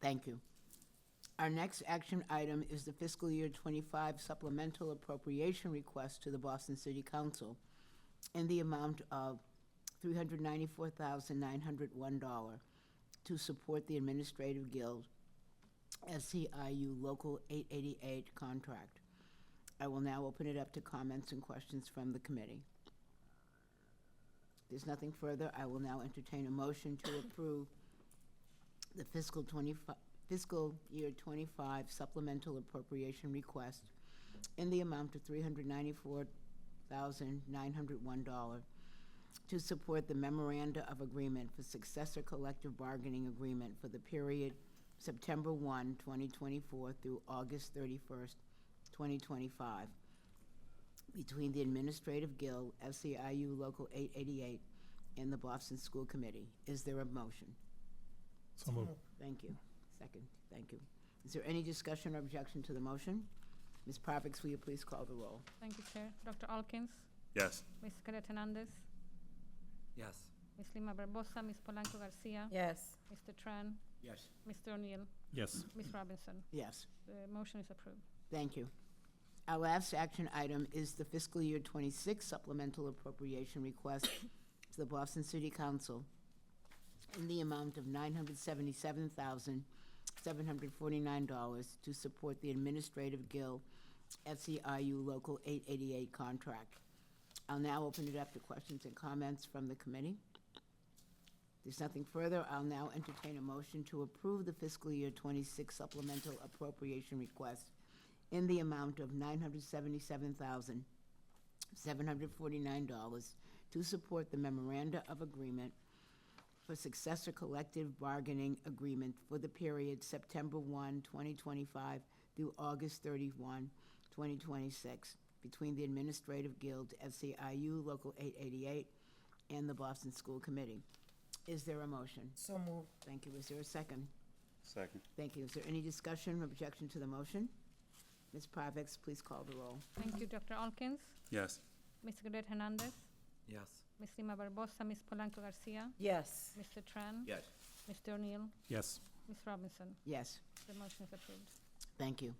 Thank you. Our next action item is the fiscal year 25 supplemental appropriation request to the Boston City Council in the amount of $394,901 to support the Administrative Guild SCIU Local 888 contract. I will now open it up to comments and questions from the committee. There's nothing further. I will now entertain a motion to approve the fiscal 25, fiscal year 25 supplemental appropriation request in the amount of $394,901 to support the memoranda of agreement for successor collective bargaining agreement for the period September 1, 2024 through August 31st, 2025, between the Administrative Guild, SEIU Local 888, and the Boston School Committee. Is there a motion? So moved. Thank you. Second, thank you. Is there any discussion or objection to the motion? Ms. Parvex, will you please call the roll? Thank you, Chair. Dr. Alkins, Yes. Ms. Cadet Hernandez, Yes. Ms. Lima Barbosa, Ms. Polanco Garcia, Yes. Mr. Tran, Yes. Mr. O'Neill, Yes. Ms. Robinson. Yes. The motion is approved. Thank you. Our last action item is the fiscal year 26 supplemental appropriation request to the Boston City Council in the amount of $977,749 to support the Administrative Guild FCIU Local 888 contract. I'll now open it up to questions and comments from the committee. There's nothing further. I'll now entertain a motion to approve the fiscal year 26 supplemental appropriation request in the amount of $977,749 to support the memoranda of agreement for successor collective bargaining agreement for the period September 1, 2025 through August 31, 2026, between the Administrative Guild, SEIU Local 888, and the Boston School Committee. Is there a motion? So moved. Thank you. Is there a second? Second. Thank you. Is there any discussion or objection to the motion? Ms. Parvex, please call the roll. Thank you, Dr. Alkins, Yes. Ms. Cadet Hernandez, Yes. Ms. Lima Barbosa, Ms. Polanco Garcia, Yes. Mr. Tran, Yes. Mr. O'Neill, Yes. Ms. Robinson. Yes, The motion is approved. thank you.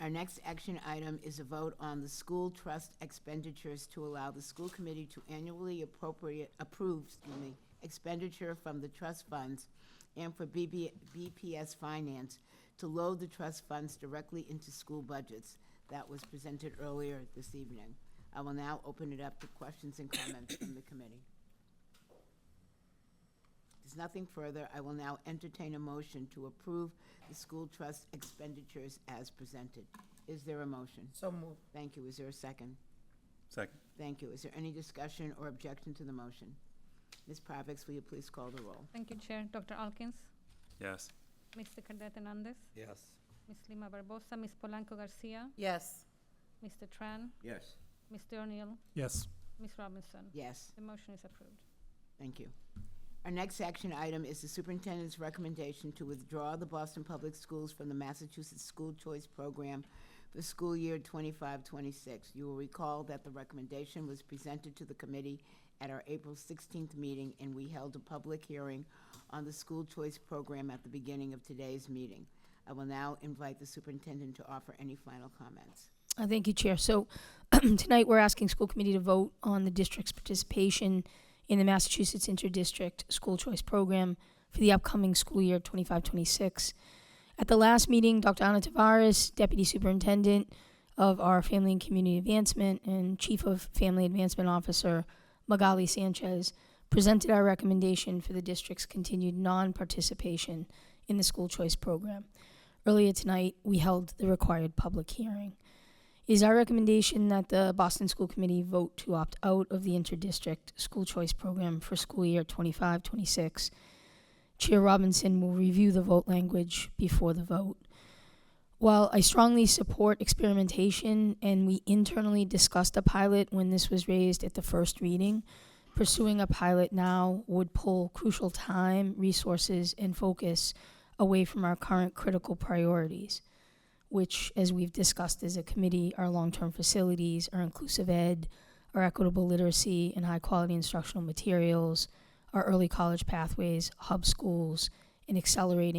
Our next action item is a vote on the school trust expenditures to allow the school committee to annually appropriate, approve, excuse me, expenditure from the trust funds and for BB, BPS Finance to load the trust funds directly into school budgets. That was presented earlier this evening. I will now open it up to questions and comments from the committee. There's nothing further. I will now entertain a motion to approve the school trust expenditures as presented. Is there a motion? So moved. Thank you. Is there a second? Second. Thank you. Is there any discussion or objection to the motion? Ms. Parvex, will you please call the roll? Thank you, Chair. Dr. Alkins, Yes. Mr. Cadet Hernandez, Yes. Ms. Lima Barbosa, Ms. Polanco Garcia, Yes. Mr. Tran, Yes. Mr. O'Neill, Yes. Ms. Robinson. Yes, The motion is approved. thank you. Our next action item is the superintendent's recommendation to withdraw the Boston Public Schools from the Massachusetts School Choice Program for school year 25-26. You will recall that the recommendation was presented to the committee at our April 16th meeting, and we held a public hearing on the school choice program at the beginning of today's meeting. I will now invite the superintendent to offer any final comments. Uh, Thank you, Chair. So tonight, we're asking school committee to vote on the district's participation in the Massachusetts Interdistrict School Choice Program for the upcoming school year 25-26. At the last meeting, Dr. Ana Tavares, Deputy Superintendent of our Family and Community Advancement and Chief of Family Advancement Officer Magali Sanchez, presented our recommendation for the district's continued non-participation in the school choice program. Earlier tonight, we held the required public hearing. It is our recommendation that the Boston School Committee vote to opt out of the interdistrict school choice program for school year 25 26. Chair Robinson will review the vote language before the vote. While I strongly support experimentation, and we internally discussed a pilot when this was raised at the first reading, pursuing a pilot now would pull crucial time, resources, and focus away from our current critical priorities which, as we've discussed as a committee, are long term facilities, our inclusive ed, our equitable literacy and high quality instructional materials, our early college pathways, hub schools, and accelerating.